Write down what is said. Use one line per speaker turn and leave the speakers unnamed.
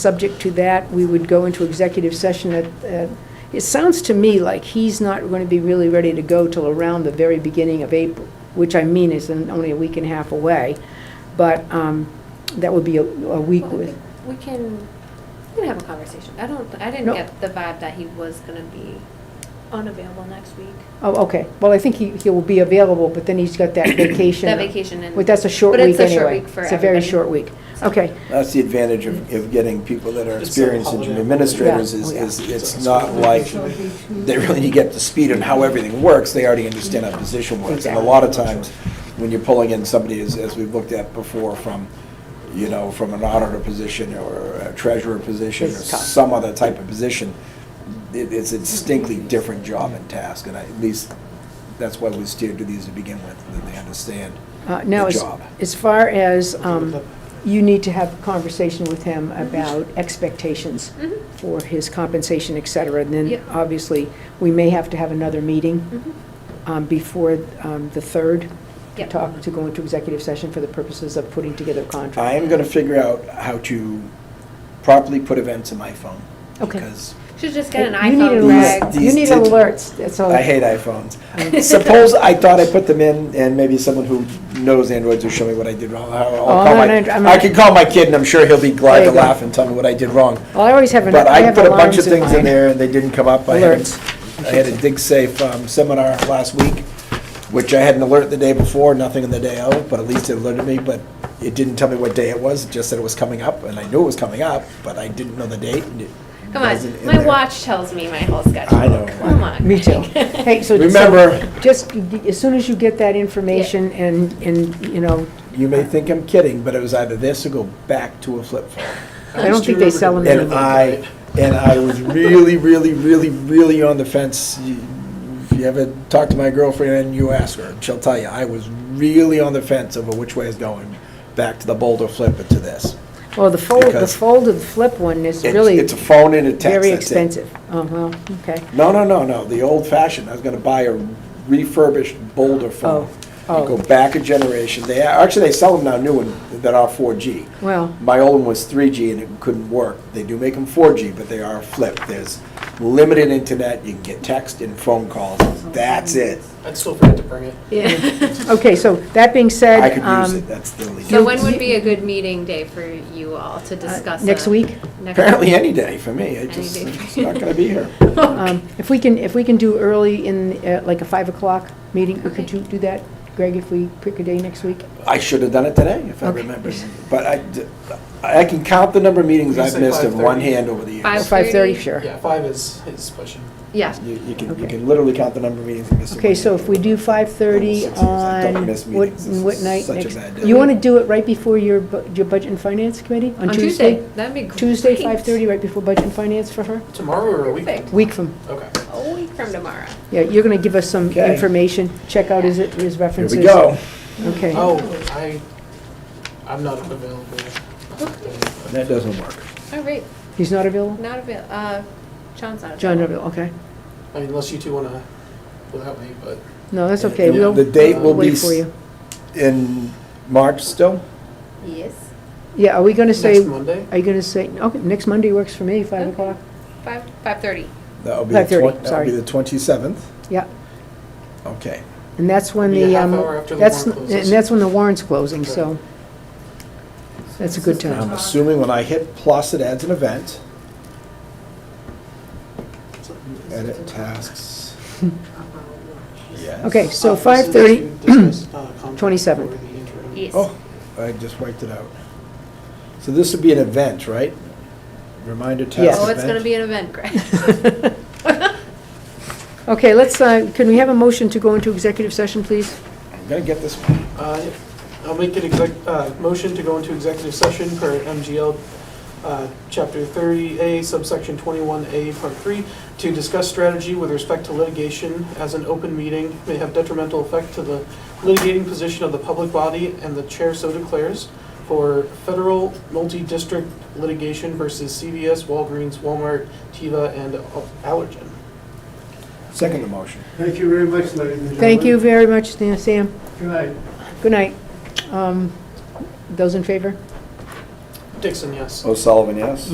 Subject to that, we would go into executive session at, at- it sounds to me like he's not going to be really ready to go till around the very beginning of April, which I mean is in- only a week and a half away, but um, that would be a a week
Well, I
with,
think We can, we can have a conversation. I don't, I
No.
didn't get the vibe that he was gonna be unavailable next week.
oh, okay. Well, I think he, he will be available, but then he's got that vacation.
That vacation and.
Well, that's a short
But
week anyway.
it's a short week for
It's a very
everybody.
short week. Okay,
That's the advantage of, of getting people that are
It's a
experienced
holiday.
engine administrators,
Yeah.
is,
Oh, yeah.
is, it's not like, they really need to get up to speed on how everything works, they already understand how position works. And a
Exactly.
lot of times, when you're pulling in somebody, as, as we've looked at before, from, you know, from an auditor position, or a treasurer position, or
It's tough.
some other type of position, it, it's a distinctly different job and task, and I- at least, that's why we steered to these to begin with, that they understand
Uh, now,
the
as,
job.
as far as, um, you need to have a conversation with him about expectations
Mhm.
for his compensation, et cetera, and then,
Yep.
obviously, we may have to have another meeting,
Mhm.
um, before, um, the third, to
Yep.
talk, to go into executive session for the purposes of putting together a contract.
I am going to figure out how to properly put events in my phone.
Okay.
Because
Should just get an
You need
iPhone,
an
These-
alert.
Greg.
these
You need
did-
alerts, that's all.
I hate iPhones. Suppose I thought I put them in, and maybe someone who knows Androids will show me what I did wrong. I'll- I'll
Oh,
call
I'm
my-
an Andro- I'm
I
an-
could call my kid, and I'm sure he'll be glad
There
to
you go.
laugh and tell me what I did wrong.
Well, I always have an,
But
I
I
have
put a bunch
alarms
of
in
things in
mine.
there, and they didn't come up. I had a-
Alerts.
I had a Dig Safe um, seminar last week, which I had an alert the day before, nothing in the day of, but at least it alerted me, but it didn't tell me what day it was, it just said it was coming up, and I knew it was coming up, but I didn't know the date. and it
Come on,
wasn't in
my
there.
watch tells me my whole schedule.
I know.
Come on.
Me too. Hey, so. so
Remember-
Just, as soon as you get that information and, and, you know,
You may think I'm kidding, but it was either this or go back to a flip phone.
I don't think they sell them
And
anymore.
I, and I was really, really, really, really on the fence. You- If you ever talk to my girlfriend and you ask her, she'll tell you, I was really on the fence over which way is going, back to the Boulder flip or to this.
Well, the fold, the
Because-
fold and flip one is
It's-
really
It's a phone and a text.
very
that's it.
expensive. Oh, well, okay.
No, no, no, no, the old fashioned, I was gonna buy a refurbished Boulder phone.
Oh,
You
oh.
Go back a generation, they, actually, they sell them now, new one, that are four G.
Well,
My old one was 3G and it couldn't work. They do make them 4G, but they are flipped. There's limited internet, you can get text and phone calls, that's it.
I'd still forget to bring it.
okay, so that being said.
I could use
um,
it, that's the only.
So
You-
when
you-
would be a good meeting day for you all to discuss?
next
a-
week?
next-
Apparently any day for me, I
Any
just,
day.
I'm just not gonna be here.
um, If we can, if we can do early in, uh, like a 5 o'clock meeting,
Okay.
could you do that, Greg, if we pick a day next week?
I should have done it today if I
Okay.
remember. But I, d- I can count the number of meetings
You
I've
say
missed in one
5:30.
hand over the
Or
Five-
years.
5:30,
5:30?
sure.
Yeah, five is, is pushing.
Yeah,
You you can, you
Okay.
can literally count the number of meetings I missed. in
Okay,
one
so
hand.
if we do
Six
5:30
years. I don't
on,
miss
what,
meetings. This
what
is
night
such a
next?
bad day.
You want to do it right before your, bu- your Budget and Finance Committee?
on Tuesday. That'd be great.
Tuesday, 5:30, right before Budget and Finance for her?
Tomorrow or a week?
Perfect.
Week from,
Okay.
A week from tomorrow.
yeah, you're going to give us some
Okay.
information, check out his, his
Here
references.
we go.
Okay.
Oh, I, I'm not available.
That doesn't work.
All right,
He's not available?
not avail, uh, John's not available.
John not available, okay.
I mean, unless you two wanna, without me, but
No, that's okay,
Yeah,
we'll
The date will be
wait
s-
for you.
in March still?
Yes.
Yeah, are we gonna say,
next Monday? Uh,
are you gonna say, okay, next Monday works for me, 5
Okay.
o'clock?
Five, five-thirty.
That'll be the
5:30,
twen- that'll
sorry.
be the 27th.
Yeah,
Okay.
and that's when
Be a
the,
half
um,
hour after the
that's,
warrant
and
closes.
that's when the warrant's closing, so that's a good
I'm
time.
assuming when I hit plus, it adds an event. Edit tasks. Yes.
Okay, so
Uh,
5:30,
this is to discuss, uh, contract
27.
for the interim.
Yes.
Oh, I just wiped it out. So this would be an event, right? Reminder task
Yes.
event?
Oh, it's gonna be an event, Greg.
Okay, let's, uh, can we have a motion to go into executive session, please?
I'm gonna get this one.
Uh, I'll make an exec, uh, motion to go into executive session per MGL, uh, Chapter 30A, subsection 21A, Part 3, to discuss strategy with respect to litigation as an open meeting may have detrimental effect to the litigating position of the public body and the chair so declares for federal multi-district litigation versus CVS, Walgreens, Walmart, Teva, and Allergen.
Second motion.
Thank you very much, ladies and gentlemen.
Thank you very much, Dan- Sam.
Good night.
Good night. Um, Those in favor?
Dixon, yes.
O'Sullivan, Oh, yes?